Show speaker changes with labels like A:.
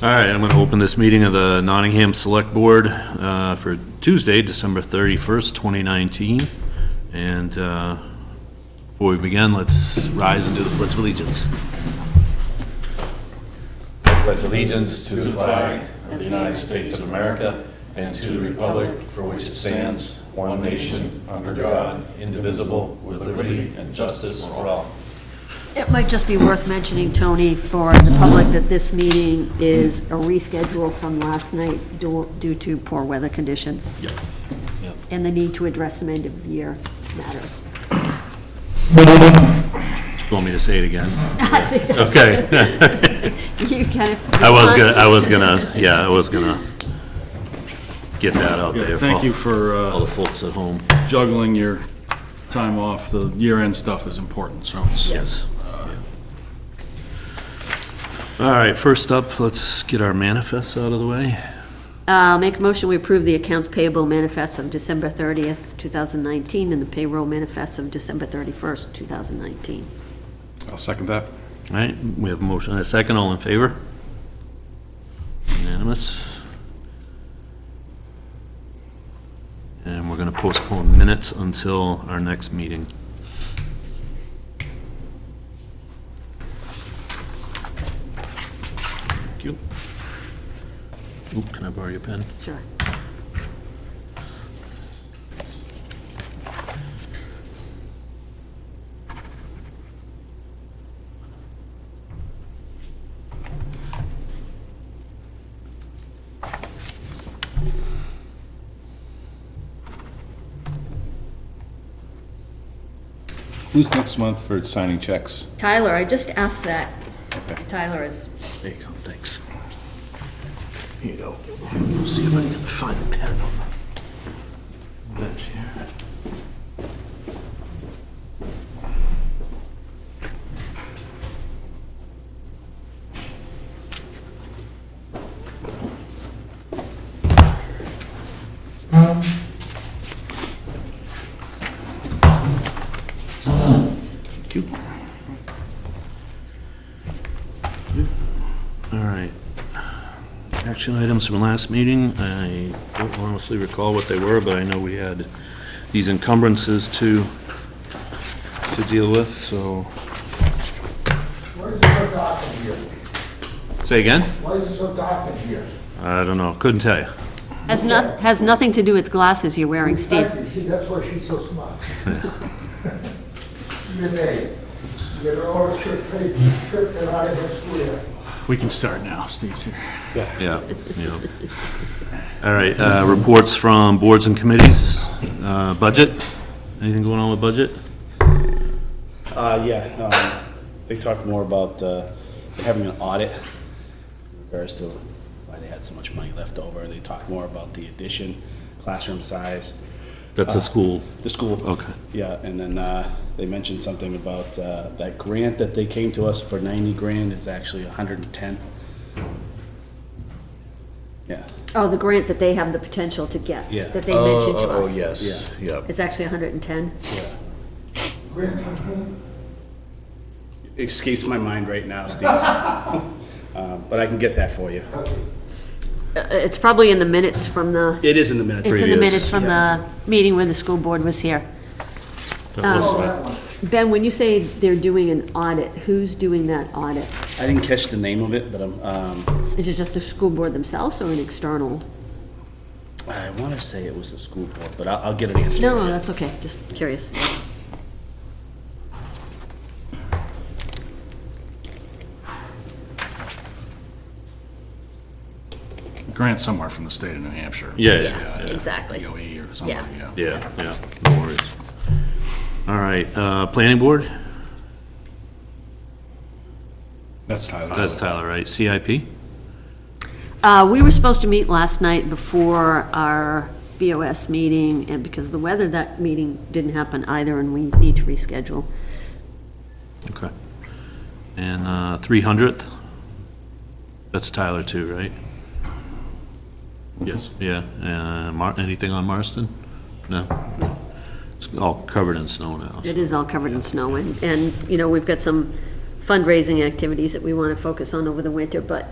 A: All right, I'm going to open this meeting of the Nottingham Select Board uh, for Tuesday, December 31st, 2019. And uh, before we begin, let's rise and do the Pledge of Allegiance.
B: pledge allegiance to the flag of the United States of America and to the republic for which it stands, one nation, under God, indivisible, with liberty and justice for all.
C: It might just be worth mentioning, Tony, for the public, that this meeting is a reschedule from last night due due to poor weather conditions
A: Yep. Yep.
C: and the need to address some end-of-year matters.
A: You Want me to say it again?
C: I think that's-
A: Okay.
C: You kind of.
A: I was gonna, I was gonna, yeah, I was gonna get that out there.
D: Yeah,
A: for
D: Thank you for
A: All the
D: uh,
A: folks at home.
D: juggling your time off. The year-end stuff is important, so it's
A: Yes. All right, first up, let's get our manifests out of the way.
C: Uh, Make a motion, we approve the accounts payable manifest of December 30th, 2019, and the payroll manifest of December 31st, 2019.
E: I'll second that.
A: All right, we have a motion and a second, all in favor? Unanimous. And we're gonna postpone minutes until our next meeting. Thank you. Oop, can I borrow your pen?
C: Sure.
E: Who's next month for signing checks?
C: Tyler, I just asked that.
E: Okay.
C: Tyler is,
A: There you go, thanks. Here you go. Let's see if I can find a pen on the bench here. Thank you. All right. Action items from last meeting, I don't honestly recall what they were, but I know we had these encumbrances to, to deal with, so.
F: Why is it so dark in here?
A: Say again?
F: Why is it so dark in here?
A: I don't know, couldn't tell you.
C: has not, has nothing to do with glasses you're wearing, Steve.
F: Exactly, see, that's why she's so smart. You're there. You're all tricked, tricked and out of this square.
D: we can start now. Steve's here.
A: Yeah, yeah. All right, uh, reports from boards and committees, uh, budget, anything going on with budget?
G: Uh, yeah, um, they talked more about, uh, having an audit in regards to why they had so much money left over. They talked more about the addition, classroom size,
A: That's the school.
G: the school.
A: Okay.
G: Yeah, and then, uh, they mentioned something about, uh, that grant that they came to us for ninety grand is actually a hundred and ten. Yeah,
C: Oh, the grant that they have the potential to get.
G: Yeah.
C: That they mentioned to us.
A: Oh, yes, yeah.
C: It's actually 110.
F: Grand from whom?
G: escapes my mind right now, Steve. Uh, but I can get that for you.
C: Uh, It's probably in the minutes from the,
G: It is in the minutes.
C: it's in the
A: Previous,
C: minutes from the meeting when the school board was here. Um, Ben, when you say they're doing an audit, who's doing that audit?
G: I didn't catch the name of it, but I'm, um,
C: Is it just the school board themselves or an external?
G: I want to say it was the school board, but I'll, I'll get an answer.
C: No,
G: for
C: no,
G: you.
C: that's okay, just curious.
D: Grant somewhere from the state of New Hampshire.
A: Yeah,
C: Yeah,
A: yeah, yeah.
C: exactly.
D: DOE or something,
C: Yeah.
D: yeah.
A: Yeah, yeah, no worries. All right, uh, planning board,
E: That's Tyler.
A: that's Tyler, right? CIP?
C: Uh, we were supposed to meet last night before our BOS meeting, and because of the weather, that meeting didn't happen either, and we need to reschedule.
A: Okay. And uh, 300th? That's Tyler too, right? Yes. Yeah, uh, Mar, anything on Marston? No? It's all covered in snow now.
C: It is all covered in snow, and, and, you know, we've got some fundraising activities that we want to focus on over the winter, but